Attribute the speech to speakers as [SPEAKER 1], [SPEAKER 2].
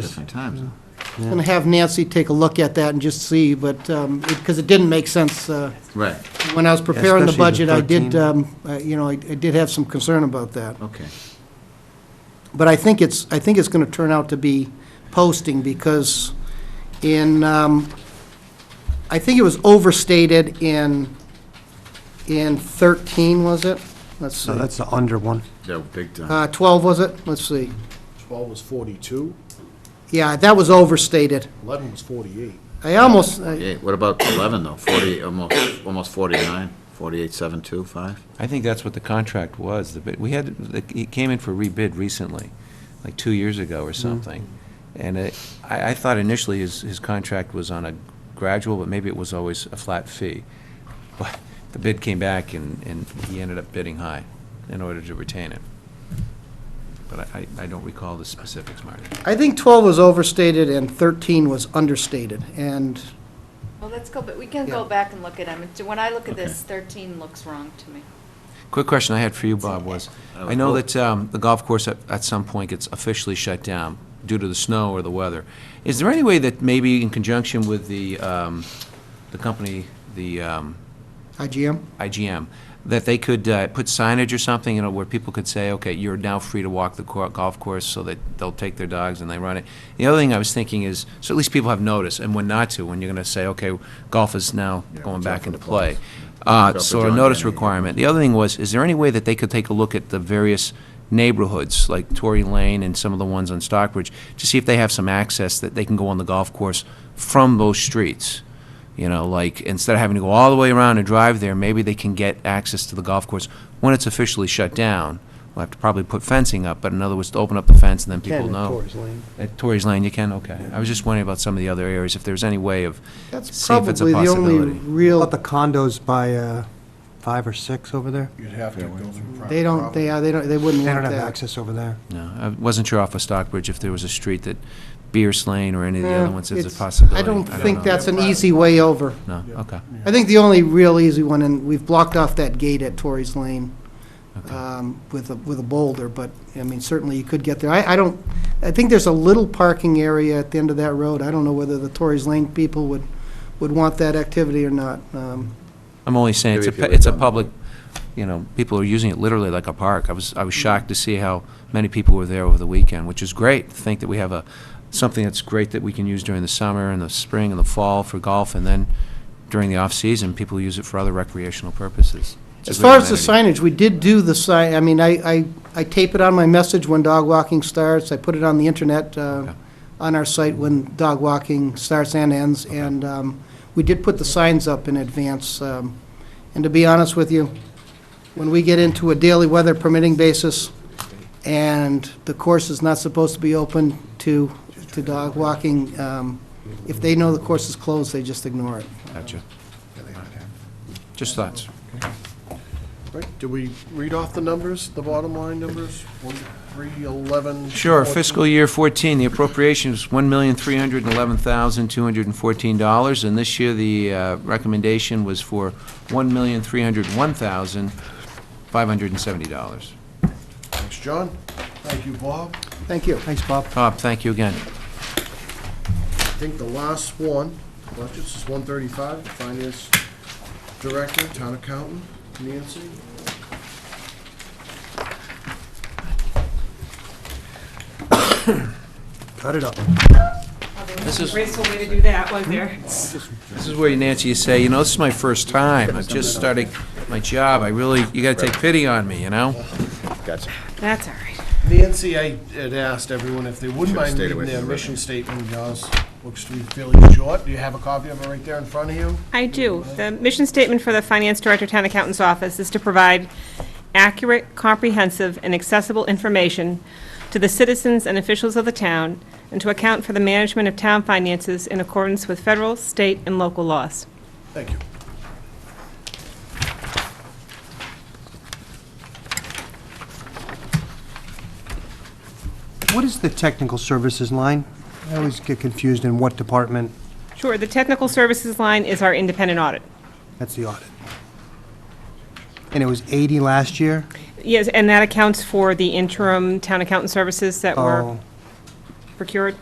[SPEAKER 1] Different times. huh?
[SPEAKER 2] And have Nancy take a look at that and just see, but, um, it, because it didn't make sense, uh,
[SPEAKER 1] Right,
[SPEAKER 2] when I was preparing the
[SPEAKER 3] especially
[SPEAKER 2] budget,
[SPEAKER 3] the
[SPEAKER 2] I did,
[SPEAKER 3] 13.
[SPEAKER 2] um, uh, you know, I, I did have some concern about that.
[SPEAKER 1] okay.
[SPEAKER 2] But I think it's, I think it's going to turn out to be posting, because in, um, I think it was overstated in, in 13, was it? Let's see.
[SPEAKER 3] So that's the under one.
[SPEAKER 1] No, big time.
[SPEAKER 2] Uh, 12, was it? Let's see.
[SPEAKER 4] 12 was 42,
[SPEAKER 2] Yeah, that was overstated.
[SPEAKER 4] 11 was 48.
[SPEAKER 2] I almost, I-
[SPEAKER 1] Yeah, what about 11, though? 40, almost, almost 49, 48, 7, 2, 5?
[SPEAKER 5] I think that's what the contract was, the bid, we had, it came in for rebid recently, like two years ago or something. And it, I, I thought initially his, his contract was on a gradual, but maybe it was always a flat fee. But the bid came back and, and he ended up bidding high in order to retain it. But I, I I don't recall the specifics, Marty.
[SPEAKER 2] I think 12 was overstated and 13 was understated, and,
[SPEAKER 6] Well, let's go, but we can go
[SPEAKER 2] Yeah.
[SPEAKER 6] back and look at them. When I look at this,
[SPEAKER 1] Okay.
[SPEAKER 6] 13 looks wrong to me.
[SPEAKER 5] Quick question I had for you, Bob, was, I know that um, the golf course at, at some point gets officially shut down due to the snow or the weather. Is there any way that maybe in conjunction with the, um, the company, the um,
[SPEAKER 2] IGM?
[SPEAKER 5] IGM, that they could uh, put signage or something, you know, where people could say, okay, you're now free to walk the cour- golf course, so that they'll take their dogs and they run it. The other thing I was thinking is, so at least people have notice, and when not to, when you're going to say, okay, golf is now
[SPEAKER 1] Yeah,
[SPEAKER 5] going
[SPEAKER 1] watch out
[SPEAKER 5] back
[SPEAKER 1] for the
[SPEAKER 5] into play.
[SPEAKER 1] balls. Watch out
[SPEAKER 5] Uh,
[SPEAKER 1] for
[SPEAKER 5] So a
[SPEAKER 1] John
[SPEAKER 5] notice
[SPEAKER 1] Denny.
[SPEAKER 5] requirement. The other thing was, is there any way that they could take a look at the various neighborhoods, like Tory Lane and some of the ones on Stockbridge, to see if they have some access that they can go on the golf course from those streets? You know, like, instead of having to go all the way around and drive there, maybe they can get access to the golf course when it's officially shut down. We'll have to probably put fencing up, but in other words, to open up the fence and then people
[SPEAKER 3] Ken
[SPEAKER 5] know.
[SPEAKER 3] Torres Lane.
[SPEAKER 5] At Torrey's Lane, you can, okay. I was just wondering about some of the other areas, if there's any way of,
[SPEAKER 2] That's
[SPEAKER 5] See if it's a
[SPEAKER 2] probably the only
[SPEAKER 5] possibility.
[SPEAKER 3] How
[SPEAKER 2] real,
[SPEAKER 3] About the condos by uh, five or six over there?
[SPEAKER 4] You'd have to go through private
[SPEAKER 2] they don't, they, are- they don't, they wouldn't
[SPEAKER 3] They
[SPEAKER 2] want
[SPEAKER 3] don't
[SPEAKER 2] that.
[SPEAKER 3] have access over there.
[SPEAKER 5] no, I wasn't sure off of Stockbridge if there was a street that Beers Lane or any of the
[SPEAKER 2] Yeah,
[SPEAKER 5] other ones, if there's
[SPEAKER 2] Eh,
[SPEAKER 5] a
[SPEAKER 2] it's-
[SPEAKER 5] possibility.
[SPEAKER 2] I don't think
[SPEAKER 5] know.
[SPEAKER 2] that's an easy way over.
[SPEAKER 5] No, okay.
[SPEAKER 2] I think the only real easy one, and we've blocked off that gate at Torrey's Lane
[SPEAKER 5] Okay.
[SPEAKER 2] um, with a, with a boulder, but, I mean, certainly you could get there. I, I don't, I think there's a little parking area at the end of that road. I don't know whether the Torrey's Lane people would, would want that activity or not. Um,
[SPEAKER 5] I'm only saying, it's
[SPEAKER 1] Maybe if you
[SPEAKER 5] a, it's a
[SPEAKER 1] lived on-
[SPEAKER 5] public, you know, people are using it literally like a park. I was, I was shocked to see how many people were there over the weekend, which is great. to Think that we have a, something that's great that we can use during the summer and the spring and the fall for golf, and then during the off-season, people use it for other recreational purposes. It's a
[SPEAKER 2] As
[SPEAKER 5] great
[SPEAKER 2] far as the
[SPEAKER 5] amenity.
[SPEAKER 2] signage, we did do the sign, I mean, I, I, I tape it on my message when dog walking starts, I put it on the internet, uh,
[SPEAKER 5] Okay.
[SPEAKER 2] on our site when dog walking starts and ends, and, um, we did put the signs up in advance, um, and to be honest with you, when we get into a daily weather permitting basis, and the course is not supposed to be open to, to dog walking, um, if they know the course is closed, they just ignore it.
[SPEAKER 5] Gotcha. Just thoughts.
[SPEAKER 4] Right, do we read off the numbers, the bottom line numbers? 1, 3, 11?
[SPEAKER 5] Sure, fiscal year 14, the appropriation is $1,311,214, and this year the uh, recommendation was for $1,301,570.
[SPEAKER 4] Thanks, John. Thank you, Bob.
[SPEAKER 2] Thank you.
[SPEAKER 3] Thanks, Bob.
[SPEAKER 5] Bob, thank you again.
[SPEAKER 4] I think the last one, budgets is 135, the finance director, town accountant, Nancy.
[SPEAKER 3] Cut it up.
[SPEAKER 5] This is,
[SPEAKER 7] Graceful way to do that, was there?
[SPEAKER 5] this is where Nancy, you say, you know, this is my first time, I've just started my job, I really, you gotta take pity on me, you know?
[SPEAKER 1] Gotcha.
[SPEAKER 7] That's all right.
[SPEAKER 4] Nancy, I had asked everyone if they wouldn't
[SPEAKER 1] Should've
[SPEAKER 4] mind
[SPEAKER 1] stayed
[SPEAKER 4] reading
[SPEAKER 1] away from
[SPEAKER 4] their
[SPEAKER 1] the
[SPEAKER 4] mission statement, yours looks to be fairly short. Do you have a copy of it right there in front of you?
[SPEAKER 7] I do. The mission statement for the Finance Director, Town Accountant's Office is to provide accurate, comprehensive, and accessible information to the citizens and officials of the town, and to account for the management of town finances in accordance with federal, state, and local laws.
[SPEAKER 4] Thank you.
[SPEAKER 3] What is the technical services line? I always get confused in what department.
[SPEAKER 7] Sure, the technical services line is our independent audit.
[SPEAKER 3] That's the audit. And it was 80 last year?
[SPEAKER 7] Yes, and that accounts for the interim town accountant services that were
[SPEAKER 3] Oh,
[SPEAKER 7] procured.